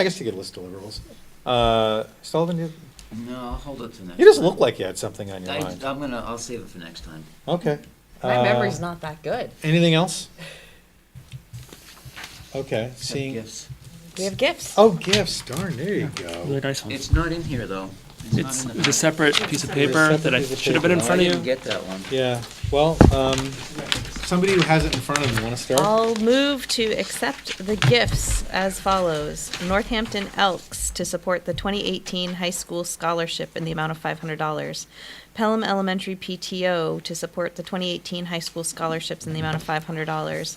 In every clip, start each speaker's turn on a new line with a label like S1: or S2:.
S1: I guess you could list deliverables. Uh, Sullivan, you,
S2: No, I'll hold it to next.
S1: you just
S2: time.
S1: look like you had something on your
S2: I,
S1: mind.
S2: I'm gonna, I'll save it for next time.
S1: Okay.
S3: My
S1: Uh,
S3: memory's not that good.
S1: Anything else? Okay,
S2: Except
S1: seeing,
S2: gifts.
S3: We have gifts.
S1: oh, gifts, darn, there you go.
S4: Really nice one.
S2: It's not in here though.
S4: It's,
S2: not in
S4: it's a
S2: the.
S4: separate piece of
S1: It's a
S4: paper
S1: separate
S4: that I
S1: piece of
S4: should have been in
S1: paper.
S2: I
S4: front
S2: didn't
S4: of you.
S2: get that one.
S1: Yeah, well, um, somebody who has it in front of them, wanna start?
S3: I'll move to accept the gifts as follows. Northampton Elks to support the 2018 high school scholarship in the amount of $500. Pelham Elementary PTO to support the 2018 high school scholarships in the amount of $500.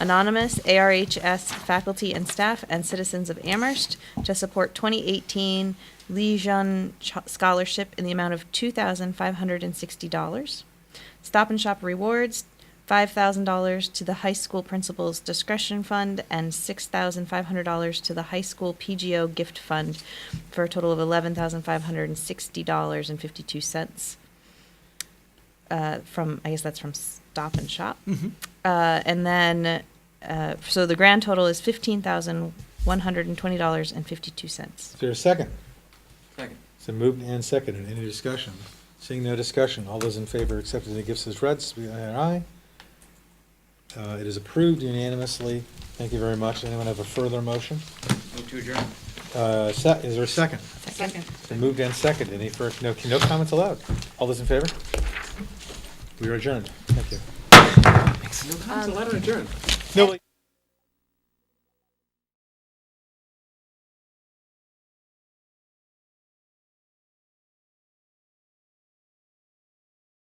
S3: Anonymous, ARHS faculty and staff, and citizens of Amherst to support 2018 Legion Ch- Scholarship in the amount of $2,560. Stop and Shop Rewards, $5,000 to the High School Principal's Discretion Fund and $6,500 to the High School PGO Gift Fund for a total of $11,560.52. Uh, from, I guess that's from Stop and Shop. Uh, and then, uh, so the grand total is $15,120.52.
S1: Is there a second?
S2: Second.
S1: So moved and seconded, any discussion? Seeing no discussion, all those in favor accepting the gifts as read, say aye. Uh, it is approved unanimously, thank you very much, anyone have a further motion?
S2: Move to adjourn.
S1: Uh, se- is there a second?
S3: Second.
S1: So moved and seconded, any first, no, no comments allowed, all those in favor? We are adjourned, thank you.
S2: Thanks.
S1: No, wait.